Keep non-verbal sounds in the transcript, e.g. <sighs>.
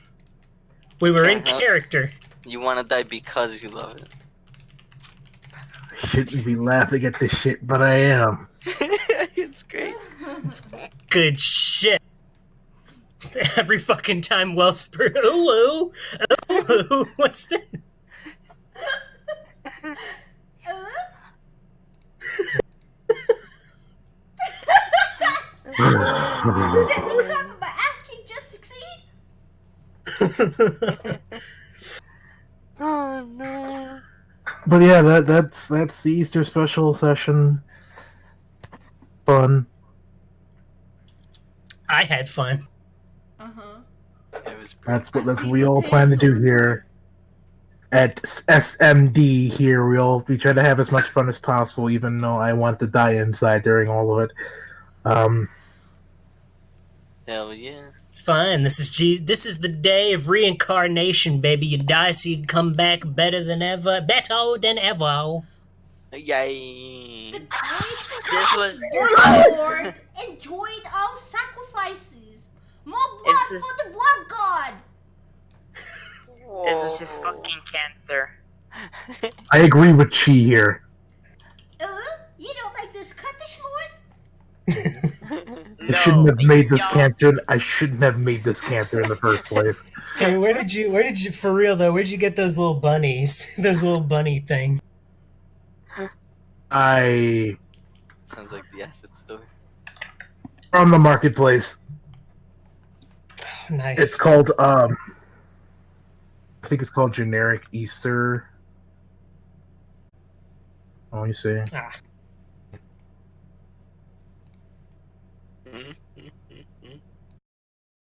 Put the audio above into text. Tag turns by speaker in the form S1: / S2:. S1: We were in
S2: Uh-huh.
S1: character.
S2: You want to die because you love
S3: Shouldn't be laughing at this shit, but I am.
S2: it. <laughs> it's great.
S1: Good shit. <laughs> Every fucking time Wellspur. <laughs> Oh, oh, oh, oh. <laughs> What's
S4: <laughs>
S1: that?
S5: Did that thing happen by ass cheek just succeed?
S2: Oh no.
S3: But yeah, that that's that's the Easter special session. Fun.
S1: I had fun.
S5: Uh huh.
S2: It was pretty.
S3: That's what that's what we all plan to do here. At S- SMD here, we all we try to have as much fun as possible, even though I want to die inside during all of it. Um,
S2: Hell yeah.
S1: It's fun. This is Je- This is the day of reincarnation, baby. You die so you can come back better than ever, better than ever.
S2: Yay.
S5: The grace
S2: This was. <laughs>
S5: <laughs> of the Lord enjoyed our sacrifices. More blood
S4: It's just-
S5: for the blood god.
S4: This was just fucking cancer.
S3: I agree with Chi here.
S5: Uh, you don't like the Scottish Lord?
S3: I shouldn't have made this cancer. I shouldn't have made this cancer in the first place.
S1: Hey, where did you? Where did you? For real though, where'd you get those little bunnies? <laughs> those little bunny thing. <sighs>
S3: I
S2: Sounds like the acid <laughs> store.
S3: from the marketplace.
S1: Nice.
S3: It's called um I think it's called generic Easter. Oh, you see.
S1: Ah,